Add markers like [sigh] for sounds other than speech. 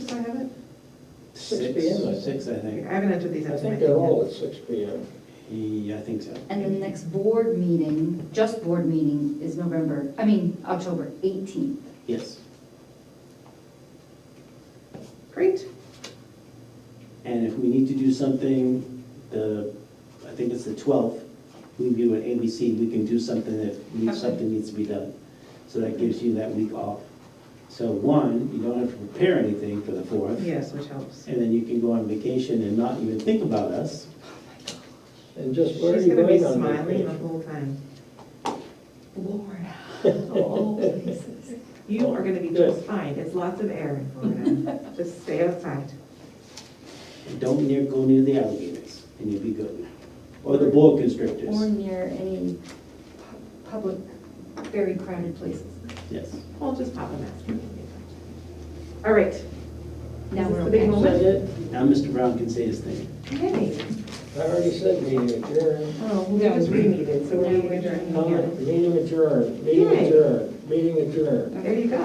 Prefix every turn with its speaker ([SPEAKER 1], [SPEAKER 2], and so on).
[SPEAKER 1] Six
[SPEAKER 2] Six
[SPEAKER 1] PM?
[SPEAKER 2] or Six, I think.
[SPEAKER 3] I haven't entered these
[SPEAKER 1] I
[SPEAKER 3] into my
[SPEAKER 1] think
[SPEAKER 3] thing
[SPEAKER 1] they're all
[SPEAKER 3] yet.
[SPEAKER 1] at six P M.
[SPEAKER 2] He, I think so.
[SPEAKER 4] And then the next board meeting, just board meeting, is November, I mean, October 18th.
[SPEAKER 2] Yes.
[SPEAKER 3] Great,
[SPEAKER 2] And if we need to do something, the, I think it's the twelfth, we do an ABC, we can do something if need-
[SPEAKER 3] Okay.
[SPEAKER 2] something needs to be done. So that gives you that week off. So one, you don't have to prepare anything for the fourth.
[SPEAKER 3] yes, which helps.
[SPEAKER 2] And then you can go on vacation and not even think about us.
[SPEAKER 1] And just
[SPEAKER 3] She's
[SPEAKER 1] where are you
[SPEAKER 3] gonna be
[SPEAKER 1] going on
[SPEAKER 3] smiling the
[SPEAKER 1] vacation?
[SPEAKER 3] whole time. [laughs]
[SPEAKER 4] Florida, of all places.
[SPEAKER 3] You are gonna be
[SPEAKER 1] Good.
[SPEAKER 3] just fine, there's lots of air in
[SPEAKER 1] [laughs]
[SPEAKER 3] Florida, just stay outside.
[SPEAKER 2] And Don't near, go near the alligators and you'll be good. Or the boa
[SPEAKER 4] Or
[SPEAKER 2] constrictors.
[SPEAKER 4] near any pu- public, very crowded places.
[SPEAKER 2] Yes.
[SPEAKER 3] I'll just pop a mask. All right,
[SPEAKER 4] Now
[SPEAKER 3] Is this
[SPEAKER 4] we're
[SPEAKER 3] the big
[SPEAKER 4] okay.
[SPEAKER 3] moment?
[SPEAKER 1] That's it?
[SPEAKER 2] Now Mr. Brown can say his thing.
[SPEAKER 3] hey,
[SPEAKER 1] I already said meeting adjourned.
[SPEAKER 3] oh, we just reneeded, so we're gonna adjourn.
[SPEAKER 1] Comment, meeting adjourned, meeting
[SPEAKER 3] Yay.
[SPEAKER 1] adjourned, meeting adjourned.
[SPEAKER 3] There you go.